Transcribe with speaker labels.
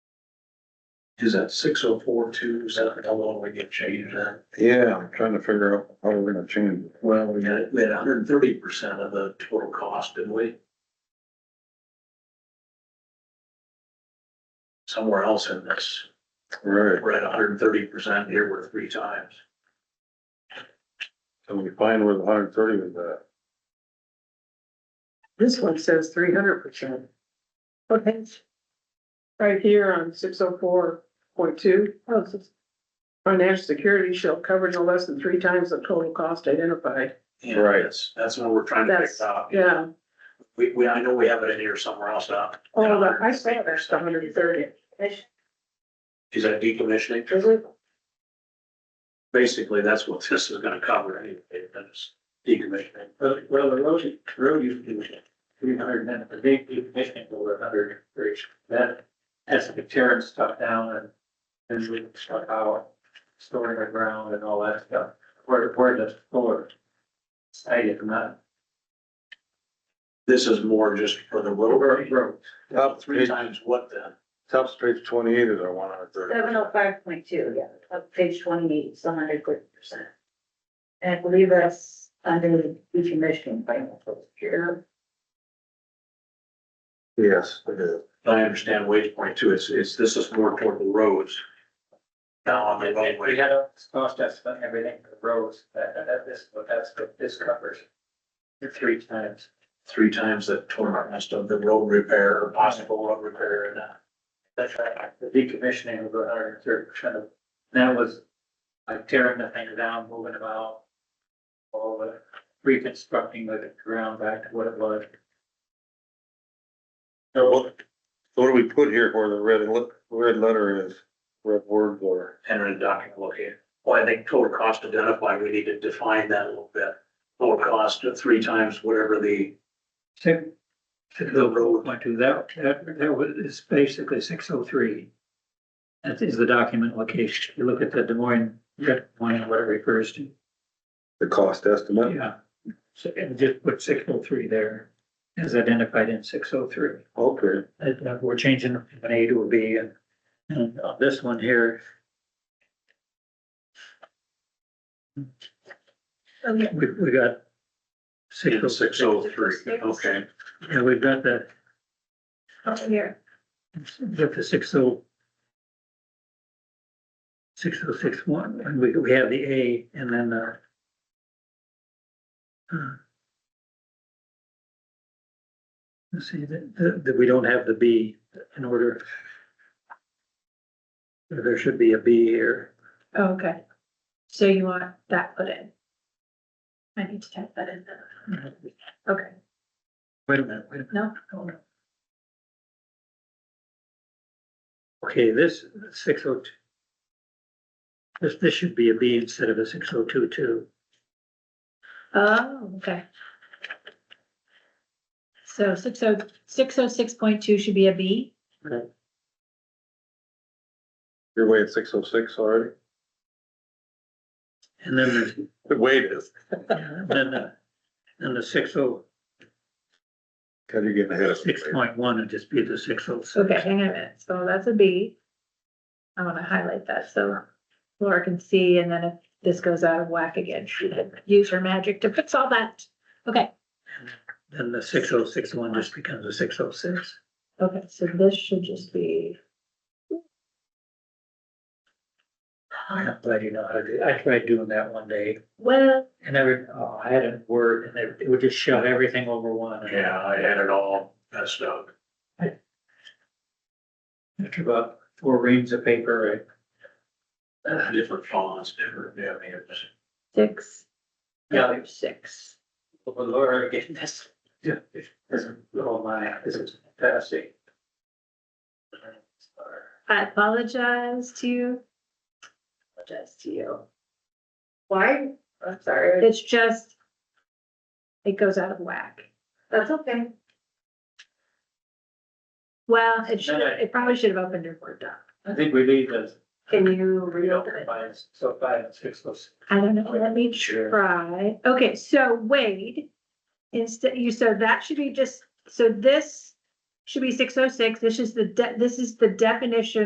Speaker 1: Is that six oh four two, is that how long we get changed that?
Speaker 2: Yeah, I'm trying to figure out how we're gonna change it.
Speaker 1: Well, we had, we had hundred and thirty percent of the total cost, didn't we? Somewhere else in this,
Speaker 2: Right,
Speaker 1: we're at hundred and thirty percent, here we're three times.
Speaker 2: so we find where the hundred and thirty was at.
Speaker 3: This one says three hundred percent. Okay. Right here on six oh four point two, Oh, financial security shall cover no less than three times the total cost identified.
Speaker 1: And
Speaker 2: Right.
Speaker 1: That's, that's what we're trying to pick
Speaker 3: That's,
Speaker 1: up.
Speaker 3: yeah,
Speaker 1: We, we, I know we have it in here somewhere else now.
Speaker 3: oh, the- I saw that's the hundred and thirty.
Speaker 1: Is that decommissioning?
Speaker 3: Is it?
Speaker 1: Basically, that's what this is gonna cover anyway, that's decommissioning.
Speaker 4: Well, well, the road, road used to be three hundred and the big decommissioning over a hundred and thirty. That has to be tearing stuff down and and we stuff out, storing the ground and all that stuff. Where, where does floor? I did not.
Speaker 1: This is more just for the road.
Speaker 4: Road.
Speaker 2: Top
Speaker 1: Three
Speaker 2: page,
Speaker 1: times what then?
Speaker 2: top page twenty-eight is our one hundred and thirty.
Speaker 5: Seven oh five point two, yeah, up page twenty-eight, it's hundred thirty percent. And I believe that's under decommissioning by the year.
Speaker 2: Yes, it is.
Speaker 1: I understand Wade's point too, it's, it's, this is more toward the roads. Now on the
Speaker 4: And We
Speaker 1: roadway,
Speaker 4: had a cost estimate, and everything for roads, that, that- that, this, but that's what this covers. Three times.
Speaker 1: three times the total cost of the road repair or possible road repair and uh, that.
Speaker 4: That's right, the decommissioning was hundred and thirty percent of, that was like tearing the thing down, moving them out. All the reconstructing the ground back to what it was.
Speaker 2: So what, so what do we put here where the red, le- red letter is, red words are?
Speaker 1: enter a document located. Well, I think total cost identified, we need to define that a little bit. Total cost of three times whatever the,
Speaker 6: Six, six
Speaker 1: the road,
Speaker 6: point two, that, that, that was, is basically six oh three. That is the document location. You look at the Des Moines, Red Moines, what it refers to,
Speaker 2: The cost estimate?
Speaker 6: yeah. So, and just put six oh three there, as identified in six oh three.
Speaker 2: Okay,
Speaker 6: we're changing from an A to a B, and, and on this one here. We, we got.
Speaker 1: in
Speaker 6: 606.
Speaker 1: six oh three, okay.
Speaker 6: Yeah, we've got the,
Speaker 5: Up
Speaker 7: Oh,
Speaker 5: here.
Speaker 6: got the six oh. Six oh six one, and we, we have the A and then, uh. uh, Let's see, that, that, that we don't have the B in order. There should be a B here.
Speaker 7: Oh, Okay, so you want that put in? I need to type that in then. Okay,
Speaker 6: Wait a minute, wait a minute.
Speaker 7: no,
Speaker 6: Okay, this six oh two. This, this should be a B instead of a six oh two two.
Speaker 7: oh, okay. So six oh, six oh six point two should be a B?
Speaker 2: you're way at six oh six already?
Speaker 6: And then there's
Speaker 2: The weight is,
Speaker 6: Yeah, Then the, then the six oh,
Speaker 2: cause you're getting ahead of me.
Speaker 6: six point one would just be the six oh six.
Speaker 7: Okay, hang on a minute, so that's a B. I wanna highlight that, so Laura can see, and then if this goes out of whack again, she can use her magic to fix all that. Okay,
Speaker 6: Then the six oh six one just becomes a six oh six.
Speaker 7: okay, so this should just be,
Speaker 6: I'm glad you know how to do, I tried doing that one day
Speaker 7: well,
Speaker 6: and every, oh, I had a word and it- it would just shove everything over one.
Speaker 1: Yeah, I had it all messed up.
Speaker 6: After about four reams of paper,
Speaker 1: Different fonts, different, yeah, I mean, it was.
Speaker 7: six,
Speaker 4: Yeah,
Speaker 7: six.
Speaker 4: but Laura, again, this, this is, oh my, this is fantastic.
Speaker 7: I apologize to you. Apologize to you.
Speaker 5: Why? I'm sorry,
Speaker 7: It's just, it goes out of whack.
Speaker 5: that's okay.
Speaker 7: Well, it should, it probably should have opened your Word doc.
Speaker 4: I think we leave this,
Speaker 7: Can you
Speaker 4: we don't
Speaker 7: reopen it?
Speaker 4: combine so five and six oh six.
Speaker 7: I don't know, let me
Speaker 4: Sure.
Speaker 7: try. Okay, so Wade, instead, you, so that should be just, so this should be six oh six. This is the, de- this is the definition